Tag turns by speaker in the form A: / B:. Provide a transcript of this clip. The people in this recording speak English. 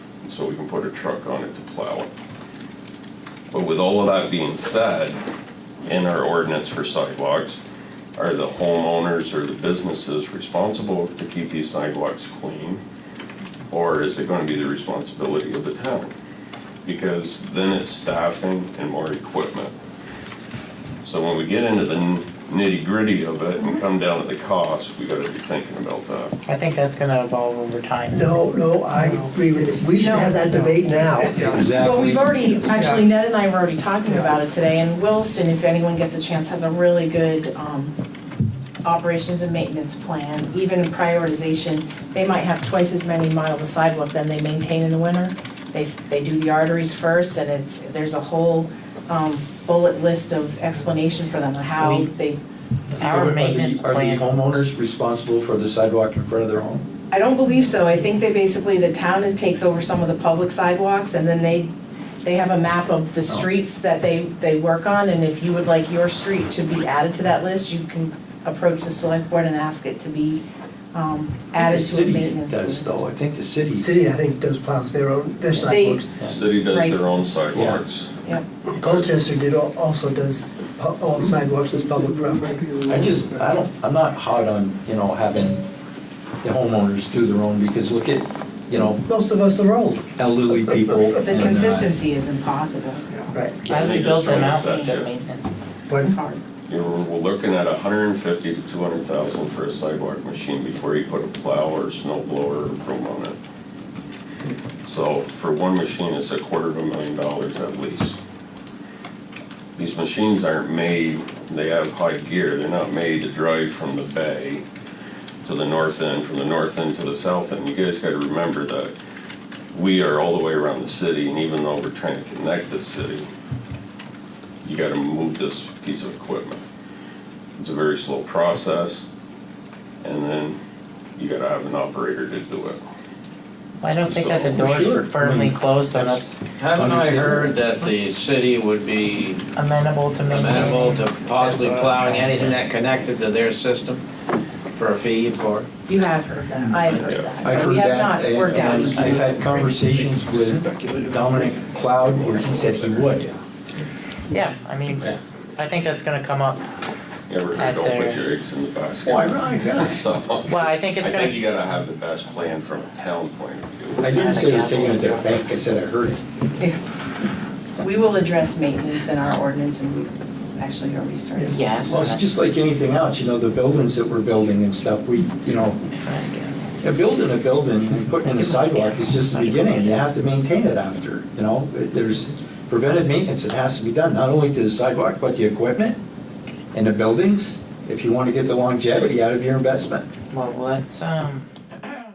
A: so we can put a truck on it to plow it. But with all of that being said, in our ordinance for sidewalks, are the homeowners or the businesses responsible to keep these sidewalks clean? Or is it gonna be the responsibility of the town? Because then it's staffing and more equipment. So when we get into the nitty gritty of it and come down to the cost, we gotta be thinking about that.
B: I think that's gonna evolve over time.
C: No, no, I agree with you. We should have that debate now.
D: Exactly.
B: Well, we've already, actually Ned and I were already talking about it today, and Williston, if anyone gets a chance, has a really good um, operations and maintenance plan, even in prioritization. They might have twice as many miles of sidewalk than they maintain in the winter. They, s- they do the arteries first, and it's, there's a whole um, bullet list of explanation for them, how they,
E: Are
F: Our
E: the-
F: maintenance
E: Are
F: plan,
E: the homeowners responsible for the sidewalk in front of their home?
B: I don't believe so. I think they basically, the town is, takes over some of the public sidewalks, and then they, they have a map of
E: Oh.
B: the streets that they, they work on, and if you would like your street to be added to that list, you can approach the select board and ask it to be um, added to a maintenance
E: The city does
B: list.
E: though, I think the city.
C: City, I think, does plows their own, their sidewalks.
A: City does
B: Right.
A: their own sidewalks.
B: Yep.
C: Colchester did, al- also does pu- all sidewalks as public property.
E: I just, I don't, I'm not hot on, you know, having the homeowners do their own, because look at, you know,
C: Most of us are old.
E: elderly people.
B: The
E: and, uh,
B: consistency is impossible.
C: Right.
F: as
A: They just
F: we built them
A: try to
F: out,
A: set
F: we need a
A: you.
F: maintenance.
B: It's
C: But
B: hard.
A: You're, we're looking at hundred and fifty to two hundred thousand for a sidewalk machine before you put a plow or a snow blower or broom on it. So for one machine, it's a quarter of a million dollars at least. These machines aren't made, they have high gear, they're not made to drive from the bay to the north end, from the north end to the south end. You guys gotta remember that we are all the way around the city, and even though we're trying to connect the city, you gotta move this piece of equipment. It's a very slow process, and then you gotta have an operator to do it.
F: I don't think that the
A: So-
E: Sure.
F: door's firmly
E: Mm.
F: closed on us
G: Haven't I
E: Understandable.
G: heard that the city would be
F: amenable to
G: amenable
F: maintaining.
G: to possibly
F: That's what I'm
G: plowing
F: trying to
G: anything that connected to their system for a fee, of course?
B: You have heard that. I have heard that.
E: I've
B: but
E: heard
B: We have
E: that,
B: not worked out.
E: and I've had conversations with Dominic Cloud where he said he would.
F: Yeah, I mean, I think that's gonna come up.
A: Ever
F: At
A: don't put
F: their-
A: your eggs in the basket.
E: Why, right, yes.
A: So,
F: Well, I think
A: I
F: it's
A: think you
F: gonna,
A: gotta have the best plan from a town point of view.
E: I didn't say I was taking it to the bank, I said I heard it.
B: We will address maintenance in our ordinance, and we've actually already started.
F: yes.
E: Well, it's just like anything else, you know, the buildings that we're building and stuff, we, you know, yeah, building a building and putting in a sidewalk is just the beginning, you have to maintain it after, you know? There's preventive maintenance that has to be done, not only to the sidewalk, but the equipment and the buildings, if you want to get the longevity out of your investment.
F: Well, let's, um,